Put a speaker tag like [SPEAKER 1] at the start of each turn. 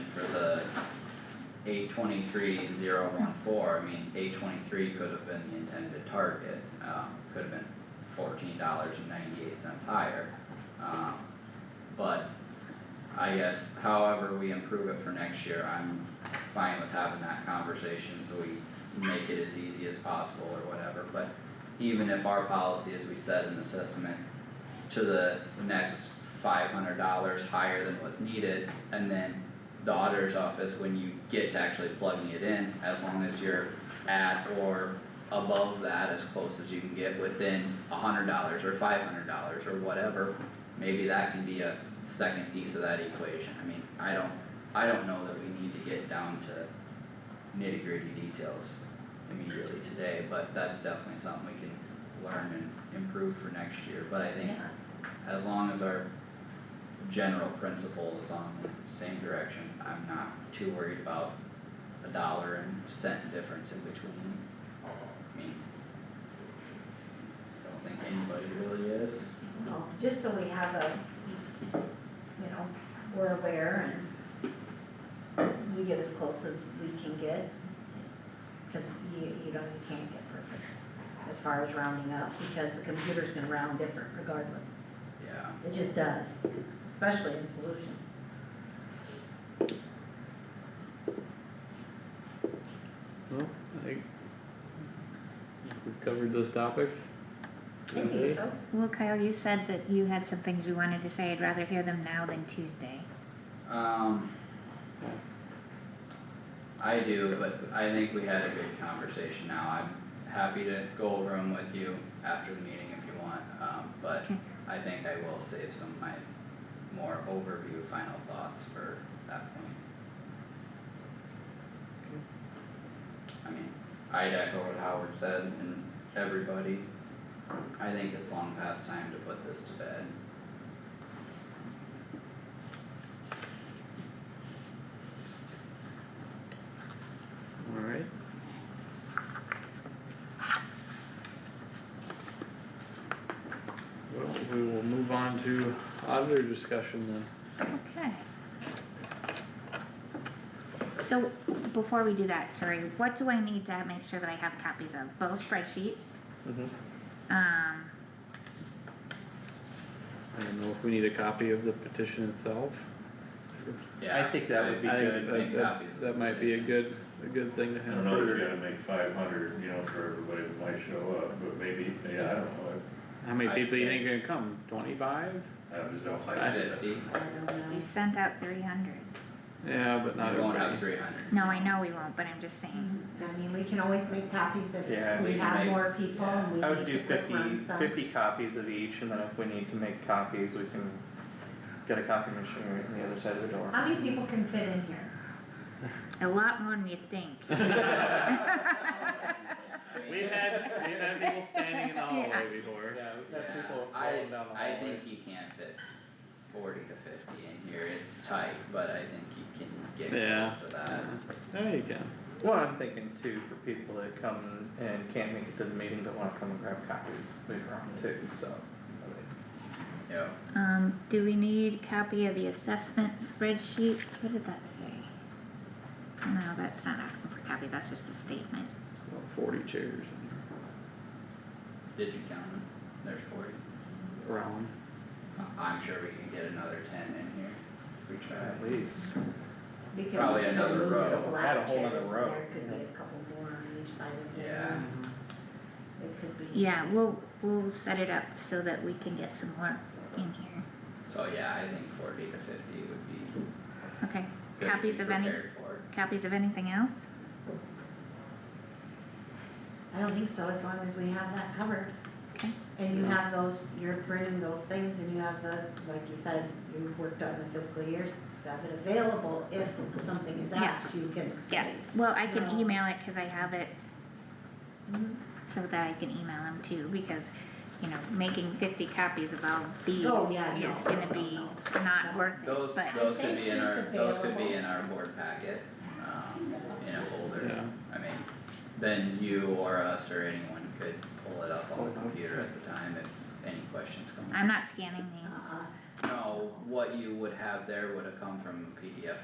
[SPEAKER 1] A twenty-three zero one four, I mean, A twenty-three could have been the intended target, um, could have been fourteen dollars and ninety-eight cents higher. Um, but I guess however we improve it for next year, I'm fine with having that conversation, so we make it as easy as possible or whatever, but even if our policy is we set an assessment to the next five hundred dollars higher than what's needed, and then the auditor's office, when you get to actually plugging it in, as long as you're at or above that, as close as you can get within hundred dollars or five hundred dollars or whatever, maybe that can be a second piece of that equation, I mean, I don't, I don't know that we need to get down to nitty gritty details immediately today, but that's definitely something we can learn and improve for next year, but I think
[SPEAKER 2] Yeah.
[SPEAKER 1] as long as our general principle is on the same direction, I'm not too worried about a dollar and cent difference in between. I mean. I don't think anybody really is.
[SPEAKER 2] No, just so we have a, you know, we're aware and we get as close as we can get. Cause you, you don't, you can't get perfect as far as rounding up, because the computer's gonna round different regardless.
[SPEAKER 1] Yeah,
[SPEAKER 2] It just does, especially in solutions.
[SPEAKER 3] Well, I think we've covered this topic.
[SPEAKER 2] I
[SPEAKER 4] Mm-hmm.
[SPEAKER 2] think so.
[SPEAKER 5] Well, Kyle, you said that you had some things you wanted to say, I'd rather hear them now than Tuesday.
[SPEAKER 1] um. I do, but I think we had a good conversation now, I'm happy to go over them with you after the meeting if you want, um, but
[SPEAKER 5] Okay.
[SPEAKER 1] I think I will save some of my more overview final thoughts for that point. I mean, I'd echo what Howard said and everybody, I think it's long past time to put this to bed.
[SPEAKER 3] Alright. Well, we will move on to auditor discussion then.
[SPEAKER 5] Okay. So, before we do that, sorry, what do I need to make sure that I have copies of? Both spreadsheets?
[SPEAKER 3] Mm-hmm.
[SPEAKER 5] Um,
[SPEAKER 3] I don't know if we need a copy of the petition itself.
[SPEAKER 1] Yeah,
[SPEAKER 4] think that would be
[SPEAKER 3] I think
[SPEAKER 4] good.
[SPEAKER 3] that-
[SPEAKER 1] Make
[SPEAKER 3] that-
[SPEAKER 1] copies of the
[SPEAKER 3] That might be a
[SPEAKER 1] petition.
[SPEAKER 3] good, a good thing to
[SPEAKER 6] I
[SPEAKER 3] have.
[SPEAKER 6] don't know if
[SPEAKER 3] for-
[SPEAKER 6] you gotta make five hundred, you know, for everybody that might show up, but maybe, yeah, I don't know,
[SPEAKER 3] How many
[SPEAKER 1] I'd
[SPEAKER 3] people you
[SPEAKER 1] say-
[SPEAKER 3] think are gonna come? Twenty-five?
[SPEAKER 6] I I just don't like
[SPEAKER 3] I-
[SPEAKER 6] that.
[SPEAKER 1] Fifty,
[SPEAKER 2] I don't
[SPEAKER 5] we
[SPEAKER 2] know.
[SPEAKER 5] sent out three hundred.
[SPEAKER 3] Yeah, but not
[SPEAKER 1] we won't have
[SPEAKER 3] everybody.
[SPEAKER 1] three hundred.
[SPEAKER 5] No, I know we won't, but I'm just saying,
[SPEAKER 2] I mean, we can always make copies if
[SPEAKER 4] Yeah,
[SPEAKER 2] we
[SPEAKER 1] we can
[SPEAKER 2] have
[SPEAKER 1] make-
[SPEAKER 2] more people and we
[SPEAKER 4] I would
[SPEAKER 2] need
[SPEAKER 4] do
[SPEAKER 2] to quick
[SPEAKER 4] fifty,
[SPEAKER 2] run some.
[SPEAKER 4] fifty copies of each, and then if we need to make copies, we can get a copy machine right on the other side of the door.
[SPEAKER 2] How many people can fit in here?
[SPEAKER 5] a lot more than you think.
[SPEAKER 3] We've had, we've had people standing in the hallway before.
[SPEAKER 4] Yeah, we've had
[SPEAKER 1] Yeah,
[SPEAKER 4] people
[SPEAKER 1] I-
[SPEAKER 4] falling down the
[SPEAKER 1] I
[SPEAKER 4] hallway.
[SPEAKER 1] think you can fit forty to fifty in here, it's tight, but I think you can get
[SPEAKER 3] Yeah.
[SPEAKER 1] close to that.
[SPEAKER 3] There you go.
[SPEAKER 4] Well, I'm thinking too, for people that come and can't make it to the meeting, but wanna come and grab copies later on too, so.
[SPEAKER 1] Yeah.
[SPEAKER 5] Um, do we need copy of the assessment spreadsheets? What did that say? No, that's not asking for copy, that's just a statement.
[SPEAKER 3] About Forty chairs
[SPEAKER 1] Did you count them? There's forty.
[SPEAKER 3] around.
[SPEAKER 1] I- I'm sure we can get another ten in here if we try.
[SPEAKER 4] At least.
[SPEAKER 2] We could
[SPEAKER 1] Probably
[SPEAKER 2] even
[SPEAKER 1] another
[SPEAKER 2] move
[SPEAKER 1] row.
[SPEAKER 2] the black
[SPEAKER 4] Add a whole other
[SPEAKER 2] chairs,
[SPEAKER 4] row.
[SPEAKER 2] There could be a couple more on each side of the
[SPEAKER 1] Yeah.
[SPEAKER 2] room. It could be.
[SPEAKER 5] Yeah, we'll, we'll set it up so that we can get some more in here,
[SPEAKER 1] So yeah, I think forty to fifty would be
[SPEAKER 5] okay?
[SPEAKER 1] good to be
[SPEAKER 5] Copies of any,
[SPEAKER 1] prepared for.
[SPEAKER 5] copies of anything else?
[SPEAKER 2] I don't think so, as long as we have that covered.
[SPEAKER 5] Okay.
[SPEAKER 2] And you have those, you're printing those things and you have the, like you said, you've worked on the fiscal years, you have it available if something is
[SPEAKER 5] Yeah.
[SPEAKER 2] asked, you can say.
[SPEAKER 5] Yeah, well, I can
[SPEAKER 2] No.
[SPEAKER 5] email it, cause I have it Mm-hmm.
[SPEAKER 2] Mhm.
[SPEAKER 5] so that I can email them too, because, you know, making fifty copies of all these
[SPEAKER 2] Oh, yeah, no,
[SPEAKER 5] is gonna
[SPEAKER 2] no,
[SPEAKER 5] be
[SPEAKER 2] no.
[SPEAKER 5] not
[SPEAKER 2] No.
[SPEAKER 5] worth it, but.
[SPEAKER 1] Those,
[SPEAKER 2] I
[SPEAKER 1] those
[SPEAKER 2] think
[SPEAKER 1] could be in
[SPEAKER 2] just
[SPEAKER 1] our, those could be in our board packet, um, in a folder,
[SPEAKER 3] Yeah.
[SPEAKER 1] I mean, then you or us or anyone could pull it up on the computer at the time if any questions come. up.
[SPEAKER 5] I'm not scanning these.
[SPEAKER 2] Uh-uh.
[SPEAKER 1] No, what you would have there would have come from PDF